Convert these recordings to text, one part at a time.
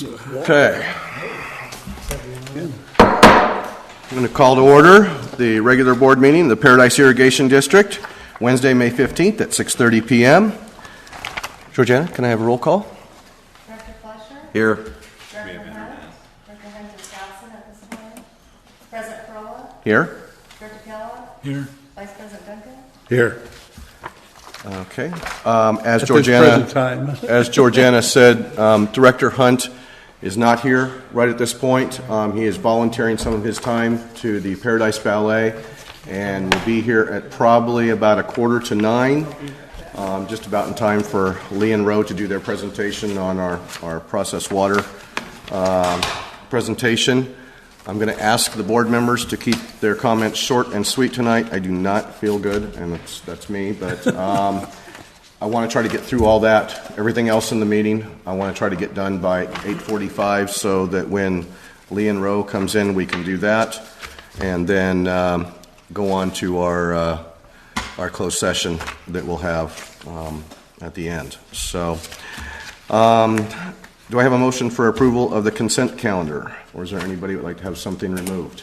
Okay. I'm going to call to order the regular board meeting, of the Paradise Irrigation District, Wednesday, May 15th at 6:30 PM. Georgiana, can I have a roll call? Director Fleischer? Here. Director Hunt? Director Hunter Johnson at this time? President Corolla? Here? Director Kellogg? Here. Vice President Duncan? Here. Okay. Um, As At this Georgiana... present time. As Georgiana said, um, Director Hunt is not here right at this point. Um, He is volunteering some of his time to the Paradise Ballet and will be here at probably about a quarter to nine, um, just about in time for Lee and Rowe to do their presentation on our our processed water um, presentation. I'm going to ask the board members to keep their comments short and sweet tonight. I do not feel good, and that's- that's me, but um, I want to try to get through all that, everything else in the meeting. I want to try to get done by 8:45 so that when Lee and Rowe comes in, we can do that, and then um, go on to our, uh, our closed session that we'll have um, at the end. So, um, do I have a motion for approval of the consent calendar? Or is there anybody who would like to have something removed?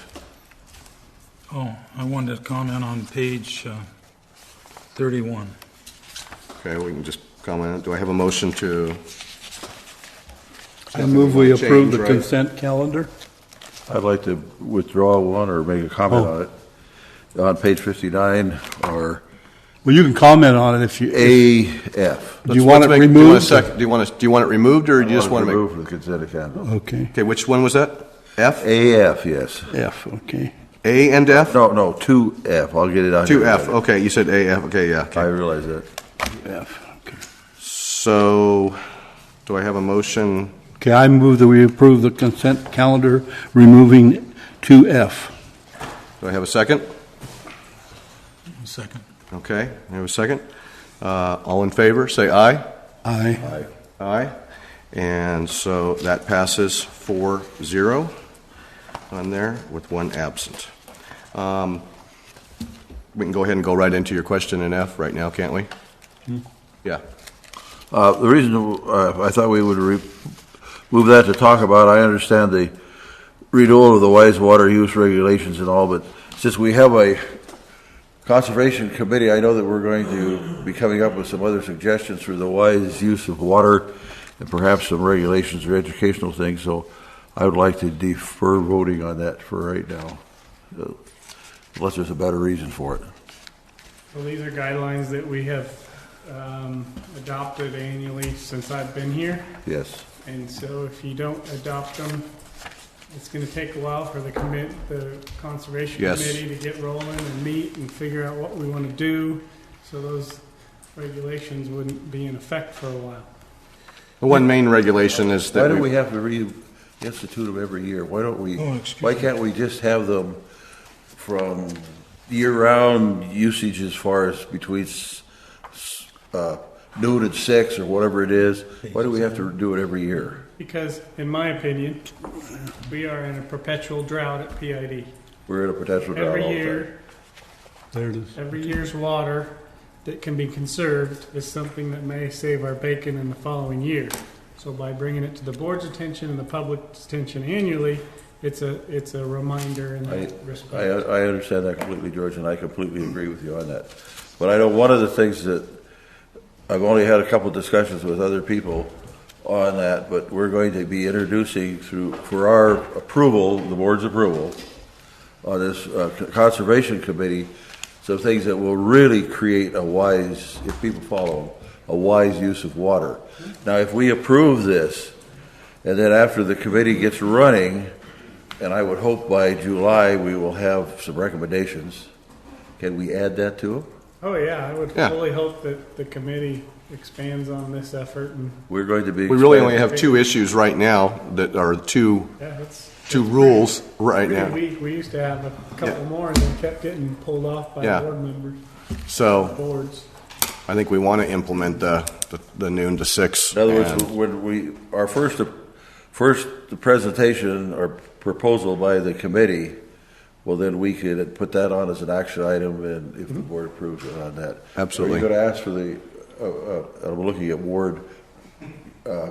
Oh, I wanted to comment on page uh, 31. Okay, we can just comment. Do I have a motion to, I move we Nothing approve the will change, consent calendar. I'd like to withdraw one or make a comment Oh. on it. On page 59 or Well, you can comment on it if you, if- AF. do Let's- you want let's make- do you want a it removed? sec- Do you want it, do you want it removed, Oh, or do you just want to make? Oh. Remove the consent agenda. Okay, Okay, which one was that? F? AF, yes. F, okay. A and F? No, no, 2F. I'll get it out. here. Two F, okay, you said A, F, okay, yeah. I okay. realize that. F, okay. So, do I have a motion? Okay, I move that we approve the consent calendar removing 2F. Do I have a second? One second. Okay, I have a second. Uh, All in favor, say aye. Aye. Aye. And so that passes 4-0 on there with one absent. Um, We can go ahead and go right into your question in F right now, can't we? Yeah. Uh, The reason uh, I thought we would re- move that to talk about, I understand the renewal of the wise water use regulations and all, but since we have a conservation committee, I know that we're going to be coming up with some other suggestions for the wise use of water and perhaps some regulations or educational things, so I would like to defer voting on that for right now, uh, unless there's a better reason for it. Well, these are guidelines that we have um, adopted annually since I've been here, Yes. and so if you don't adopt them, it's going to take a while for the commit, the conservation Yes. committee to get rolling and meet and figure out what we want to do, so those regulations wouldn't be in effect for a while. The one main regulation is Why that do we we have to reinstitute them every year? Why don't we, Oh, excuse why can't we just have them from year-round usage as far as between s- s- uh, noon and six or whatever it is? Why do we have to do it every year? Because, in my opinion, we are in a perpetual drought at PID. We're in a potential drought Every all the year, time. There it is. Every year's water that can be conserved is something that may save our bacon in the following year. So by bringing it to the board's attention and the public's attention annually, it's a, it's a reminder in that I, uh, respect. I understand that completely, George, and I completely agree with you on that. But I know one of the things that, I've only had a couple discussions with other people on that, but we're going to be introducing through, for our approval, the board's approval, on this uh, Conservation Committee, some things that will really create a wise, if people follow them, a wise use of water. Now, if we approve this, and then after the committee gets running, and I would hope by July, we will have some recommendations. Can we add that to them? Oh, yeah, I would Yeah. fully hope that the committee expands on this effort and, We're going to be. we really only have two issues right now that are two, yeah, it's. two rules right now. We, we used to have a couple Yeah. more and they kept getting pulled off by Yeah. board members, So boards. I think we want to implement the, the- the noon to six. In other words, and- when we, our first, first presentation or proposal by the committee, well, then we could put that on as an action item and if the board approves it on that. Mm-hmm. Absolutely. Are you going to ask for the, uh, uh, I'm looking at Ward, uh,